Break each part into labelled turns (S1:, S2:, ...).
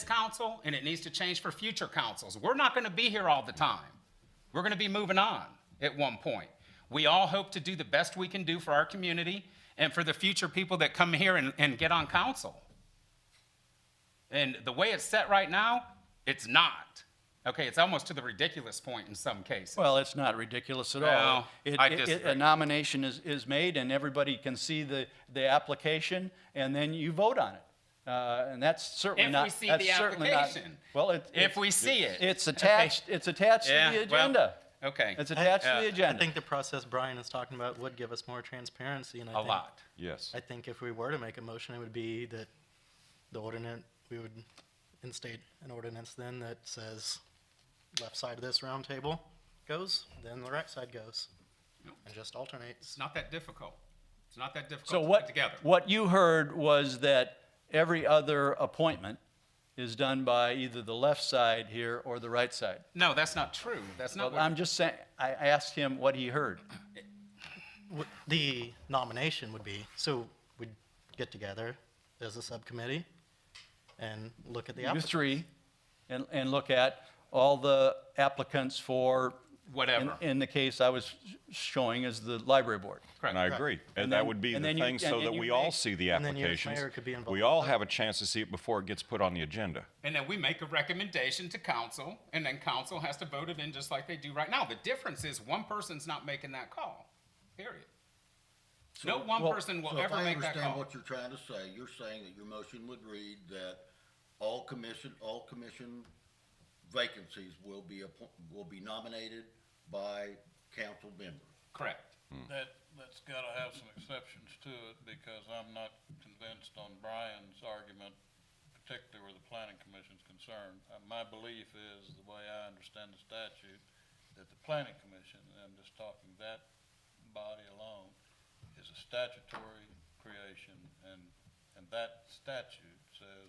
S1: this council and it needs to change for future councils. We're not going to be here all the time. We're going to be moving on at one point. We all hope to do the best we can do for our community and for the future people that come here and, and get on council. And the way it's set right now, it's not. Okay, it's almost to the ridiculous point in some cases.
S2: Well, it's not ridiculous at all.
S1: Well,
S2: It-
S1: I
S2: it- it-
S1: disagree.
S2: A nomination is, is made, and everybody can see the, the application, and then you vote on it. Uh, And that's certainly
S1: If
S2: not,
S1: we see
S2: that's
S1: the
S2: certainly not-
S1: application.
S2: Well, it.
S1: If
S2: it-
S1: we see it.
S2: It's attached, it's attached to
S1: Yeah,
S2: the
S1: well,
S2: agenda.
S1: okay.
S2: It's
S3: I-
S2: attached to
S1: uh, I
S2: the
S3: I
S2: agenda.
S3: think the process Brian is talking about would give us more transparency, and I
S1: A
S3: think,
S1: lot.
S4: Yes.
S3: I think if we were to make a motion, it would be that the ordinance we would instate an ordinance then that says left side of this round table goes, then the right side goes, and just alternates.
S1: It's not that difficult. It's not that difficult
S2: So
S1: to
S2: what,
S1: put together.
S2: what you heard was that every other appointment is done by either the left side here or the right side.
S1: No, that's not true. That's not
S2: Well,
S1: what.
S2: I'm just saying, I I asked him what he heard.
S3: W- The nomination would be so we'd get together as a subcommittee and look at the
S2: you
S3: applicant.
S2: three, and, and look at all the applicants for.
S1: Whatever.
S2: In, in the case I was showing is the library board.
S1: Correct.
S4: And I agree.
S2: And
S4: And
S2: then-
S4: that would be
S2: and
S4: the
S2: then you-
S4: thing
S2: and
S4: so
S2: then
S4: that
S2: you
S4: we
S2: may-
S4: all see the
S3: and then your mayor
S4: applications.
S3: could be
S4: We
S3: involved.
S4: all have a chance to see it before it gets put on the agenda.
S1: And then we make a recommendation to council, and then council has to vote it in just like they do right now. The difference is one person's not making that call, period. No one
S2: well,
S1: person will
S5: So if
S1: ever
S5: I
S1: make that
S5: understand
S1: call.
S5: what you're trying to say, you're saying that your motion would read that all commission, all commission vacancies will be, appo- will be nominated by council members.
S1: Correct.
S6: That, that's gotta have some exceptions to it, because I'm not convinced on Brian's argument, particularly where the planning commission's concerned. Uh, My belief is, the way I understand the statute, that the planning commission, and I'm just talking that body alone, is a statutory creation, and, and that statute says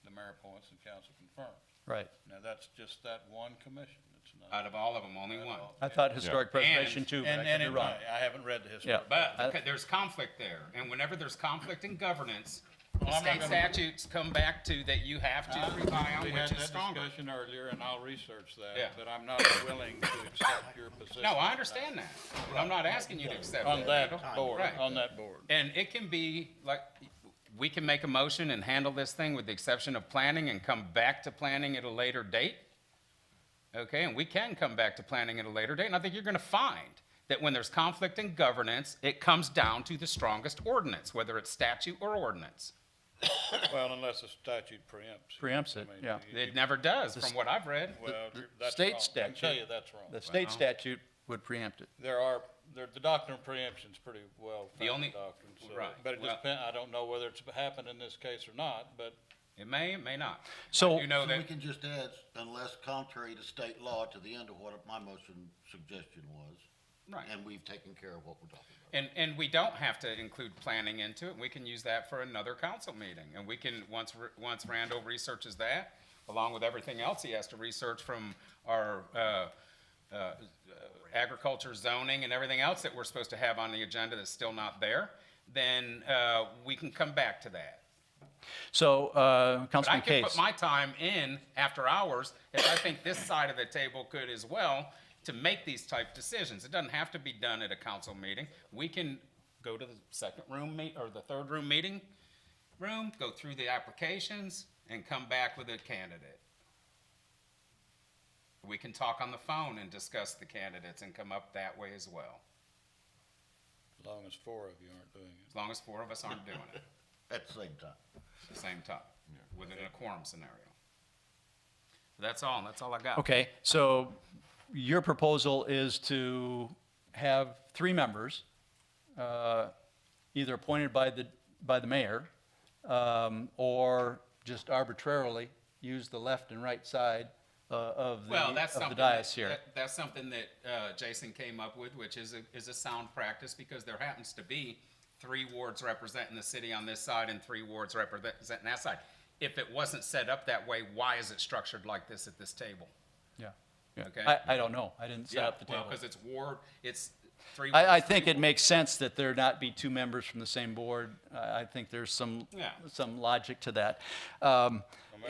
S6: the mayor appoints and council confirms.
S2: Right.
S6: Now, that's just that one commission, it's not.
S1: Out of all of them, only one.
S2: I thought historic preservation
S1: And-
S2: too, but
S6: And,
S2: I
S6: and
S2: could be
S6: it
S2: wrong.
S6: might. I haven't read the history.
S2: Yeah.
S1: But
S2: I-
S1: because there's conflict there, and whenever there's conflict in governance, the
S6: Well, I'm not
S1: state
S6: gonna-
S1: statutes come back to that you have to rely on
S6: We
S1: which
S6: had
S1: is
S6: that
S1: stronger.
S6: discussion earlier, and I'll research
S1: Yeah.
S6: that, but I'm not willing to accept your position.
S1: No, I understand that, but I'm not asking you to accept that.
S6: On that
S1: Randall.
S6: board,
S1: Right.
S6: on that board.
S1: And it can be, like, we can make a motion and handle this thing with the exception of planning and come back to planning at a later date. Okay, and we can come back to planning at a later date, and I think you're gonna find that when there's conflict in governance, it comes down to the strongest ordinance, whether it's statute or ordinance.
S6: Well, unless the statute preempts. it.
S2: Preempts
S6: I
S2: it,
S6: mean,
S2: yeah.
S6: you-
S1: It never does, from what I've read.
S6: Well, you're- that's
S2: state
S6: wrong. I can tell
S2: statute-
S6: you that's wrong.
S2: The state statute would preempt it.
S6: There are, there, the doctrine of preemption's pretty well
S1: only-
S6: founded doctrine. so-
S1: right,
S6: But it
S1: well-
S6: depends, I don't know whether it's happened in this case or not, but
S1: It may, it may not.
S2: So-
S1: You know
S5: So we
S1: that,
S5: can just add, unless contrary to state law, to the end of what my motion suggestion was.
S1: Right.
S5: And we've taken care of what we're talking about.
S1: and, and we don't have to include planning into it, we can use that for another council meeting, and we can, once, R- once Randall researches that, along with everything else he has to research from our, uh, uh, agriculture zoning and everything else that we're supposed to have on the agenda that's still not there, then, uh, we can come back to that.
S2: So, uh,
S1: But I
S2: Councilman
S1: can
S2: Case.
S1: put my time in after hours, if I think this side of the table could as well, to make these type decisions. It doesn't have to be done at a council meeting. We can go to the second room meet, or the third room meeting room, go through the applications, and come back with a candidate. We can talk on the phone and discuss the candidates and come up that way as well,
S6: as long as four of you aren't doing it.
S1: as long as four of us aren't doing it
S5: At the same time.
S1: at the same time, within a quorum scenario. That's all, that's all I got.
S2: Okay, so your proposal is to have three members, uh, either appointed by the, by the mayor, um, or just arbitrarily use the left and right side uh, of the,
S1: Well, that's
S2: of the
S1: something. that-
S2: dais here.
S1: that- That's something that uh, Jason came up with, which is a, is a sound practice, because there happens to be three wards representing the city on this side and three wards representing that side. If it wasn't set up that way, why is it structured like this at this table?
S2: Yeah, yeah.
S1: Okay.
S2: I, I don't know, I didn't set up the
S1: Well,
S2: table.
S1: because it's ward, it's three.
S2: I, I
S1: wards,
S2: think
S1: three
S2: it makes sense that there not be two members from the same board. I, I think there's some,
S1: Yeah.
S2: some logic to that. Um,